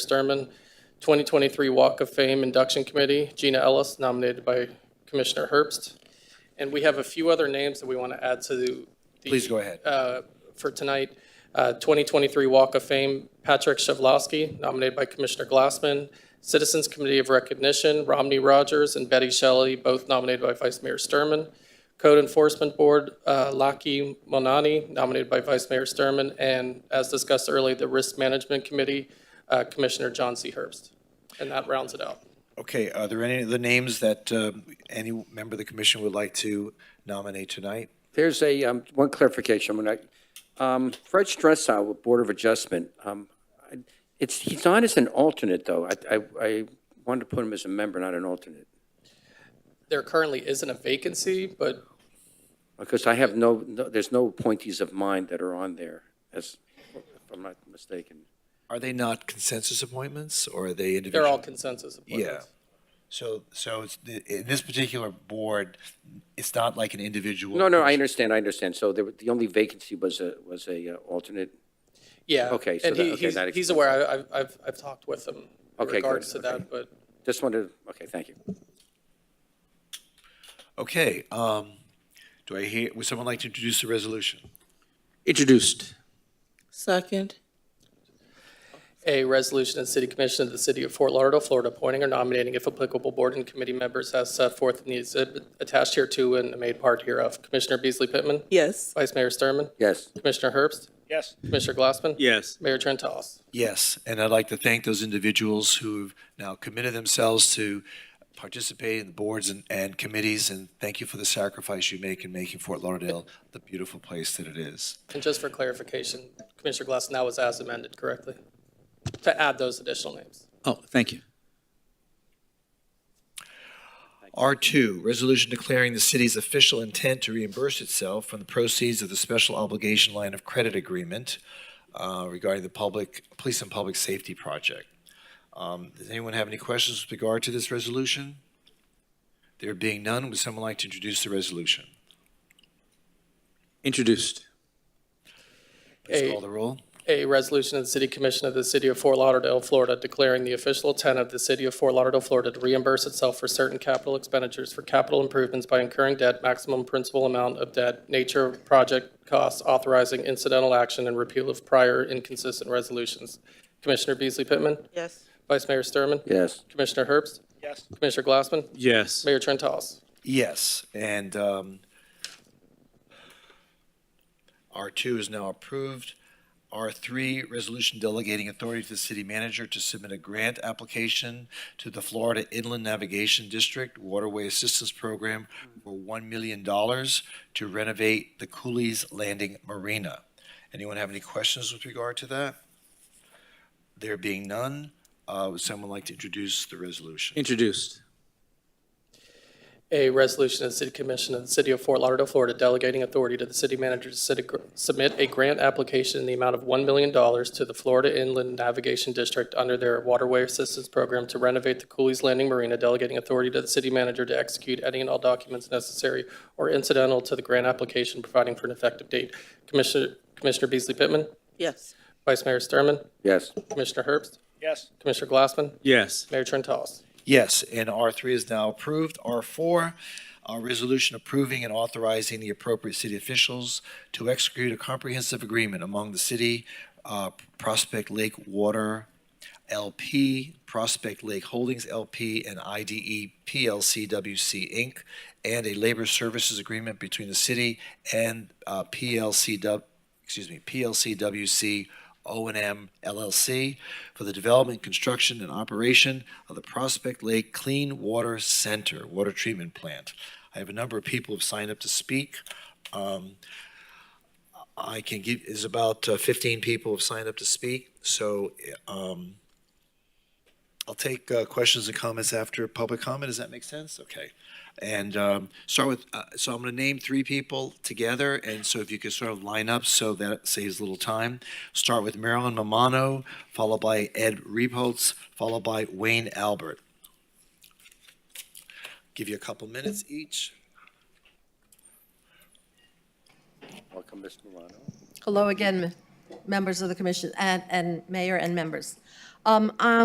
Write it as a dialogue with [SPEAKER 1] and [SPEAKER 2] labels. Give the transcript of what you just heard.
[SPEAKER 1] Sturman, 2023 Walk of Fame Induction Committee, Gina Ellis, nominated by Commissioner Herbst. And we have a few other names that we want to add to the.
[SPEAKER 2] Please go ahead.
[SPEAKER 1] uh, For tonight, Uh, 2023 Walk of Fame, Patrick Shavlowski, nominated by Commissioner Glassman. Citizens Committee of Recognition, Romney Rogers and Betty Shelley, both nominated by Vice Mayor Sturman. Code Enforcement Board, uh, Laki Monani, nominated by Vice Mayor Sturman. And as discussed earlier, the Risk Management Committee, uh, Commissioner John C. Herbst. And that rounds it out.
[SPEAKER 2] Okay, are there any of the names that um, any member of the commission would like to nominate tonight?
[SPEAKER 3] There's a, um, one clarification, when I, um, Fred Stressow with Board of Adjustment, um, I- it's, he's on as an alternate, though. I, I, I wanted to put him as a member, not an alternate,
[SPEAKER 1] There currently isn't a vacancy, but
[SPEAKER 3] because I have no, no- there's no appointees of mine that are on there, as, if I'm not mistaken.
[SPEAKER 2] Are they not consensus appointments or are they individual?
[SPEAKER 1] they're all consensus appointments.
[SPEAKER 2] So, so it's, the- in this particular board, it's not like an individual.
[SPEAKER 3] No, no, I
[SPEAKER 2] person.
[SPEAKER 3] understand, I understand. So there, were- the only vacancy was a, was a uh, alternate.
[SPEAKER 1] Yeah.
[SPEAKER 3] Okay, so
[SPEAKER 1] And
[SPEAKER 3] that-
[SPEAKER 1] he-
[SPEAKER 3] okay,
[SPEAKER 1] he's,
[SPEAKER 3] that
[SPEAKER 1] he's
[SPEAKER 3] explains
[SPEAKER 1] aware, I- I've, I've, I've talked with him in
[SPEAKER 3] Okay, good,
[SPEAKER 1] regards to
[SPEAKER 3] okay.
[SPEAKER 1] that, but
[SPEAKER 3] Just wanted, okay, thank you.
[SPEAKER 2] Okay, um, do I hear, would someone like to introduce the resolution?
[SPEAKER 4] Introduced.
[SPEAKER 5] Second,
[SPEAKER 1] A resolution of the City Commission of the City of Fort Lauderdale, Florida, appointing or nominating, if applicable, board and committee members as set forth in the exhibit attached here to and made part hereof. Commissioner Beasley Pittman,
[SPEAKER 5] yes.
[SPEAKER 1] Vice Mayor Sturman,
[SPEAKER 3] Yes,
[SPEAKER 1] Commissioner Herbst,
[SPEAKER 4] Yes.
[SPEAKER 1] Commissioner Glassman.
[SPEAKER 4] Yes.
[SPEAKER 1] Mayor Trentalles.
[SPEAKER 2] Yes, and I'd like to thank those individuals who've now committed themselves to participate in boards and, and committees, and thank you for the sacrifice you make in making Fort Lauderdale the beautiful place that it is.
[SPEAKER 1] And just for clarification, Commissioner Glassman, that was as amended correctly, to add those additional names.
[SPEAKER 4] Oh, thank you.
[SPEAKER 2] R2, resolution declaring the city's official intent to reimburse itself from the proceeds of the special obligation line of credit agreement uh, regarding the public, police and public safety project. Um, Does anyone have any questions with regard to this resolution? There being none, would someone like to introduce the resolution?
[SPEAKER 4] Introduced.
[SPEAKER 2] Please
[SPEAKER 1] A-
[SPEAKER 2] call the roll.
[SPEAKER 1] A resolution of the City Commission of the City of Fort Lauderdale, Florida, declaring the official intent of the City of Fort Lauderdale, Florida to reimburse itself for certain capital expenditures for capital improvements by incurring debt, maximum principal amount of debt, nature of project costs, authorizing incidental action, and repeal of prior inconsistent resolutions. Commissioner Beasley Pittman,
[SPEAKER 5] Yes.
[SPEAKER 1] Vice Mayor Sturman,
[SPEAKER 3] yes,
[SPEAKER 1] Commissioner Herbst,
[SPEAKER 4] Yes.
[SPEAKER 1] Commissioner Glassman,
[SPEAKER 4] Yes.
[SPEAKER 1] Mayor Trentalles.
[SPEAKER 2] Yes, and um, R2 is now approved. R3, resolution delegating authority to the city manager to submit a grant application to the Florida Inland Navigation District Waterway Assistance Program for $1 million to renovate the Cooley's Landing Marina. Anyone have any questions with regard to that? There being none, uh, would someone like to introduce the resolution?
[SPEAKER 4] Introduced.
[SPEAKER 1] A resolution of the City Commission of the City of Fort Lauderdale, Florida, delegating authority to the city manager to sit- submit a grant application in the amount of $1 million to the Florida Inland Navigation District under their Waterway Assistance Program to renovate the Cooley's Landing Marina, delegating authority to the city manager to execute any and all documents necessary or incidental to the grant application, providing for an effective date. Commissioner Commissioner Beasley Pittman,
[SPEAKER 5] Yes.
[SPEAKER 1] Vice Mayor Sturman,
[SPEAKER 3] yes,
[SPEAKER 1] Commissioner Herbst,
[SPEAKER 4] Yes.
[SPEAKER 1] Commissioner Glassman,
[SPEAKER 4] Yes.
[SPEAKER 1] Mayor Trentalles.
[SPEAKER 2] Yes, and R3 is now approved. R4, a resolution approving and authorizing the appropriate city officials to execute a comprehensive agreement among the city, uh, Prospect Lake Water LP, Prospect Lake Holdings LP, and E IDE PLC WC Inc., and a labor services agreement between the city and uh, PLC, W- excuse me, PLCWC o and M LLC for the development, construction, and operation of the Prospect Lake Clean Water Center Water Treatment Plant. I have a number of people who've signed up to speak. Um, I can give, is about uh, 15 people have signed up to speak, so um, I'll take uh, questions and comments after public comment. Does that make sense? Okay. And um, start with, uh, so I'm going to name three people together, and so if you could sort of line up so that saves a little time. Start with Marilyn Mamano, followed by Ed Reepholz, followed by Wayne Albert. Give you a couple minutes each.
[SPEAKER 3] welcome, Ms. Milano.
[SPEAKER 6] Hello again, m- members of the commission and, and mayor and members. Um,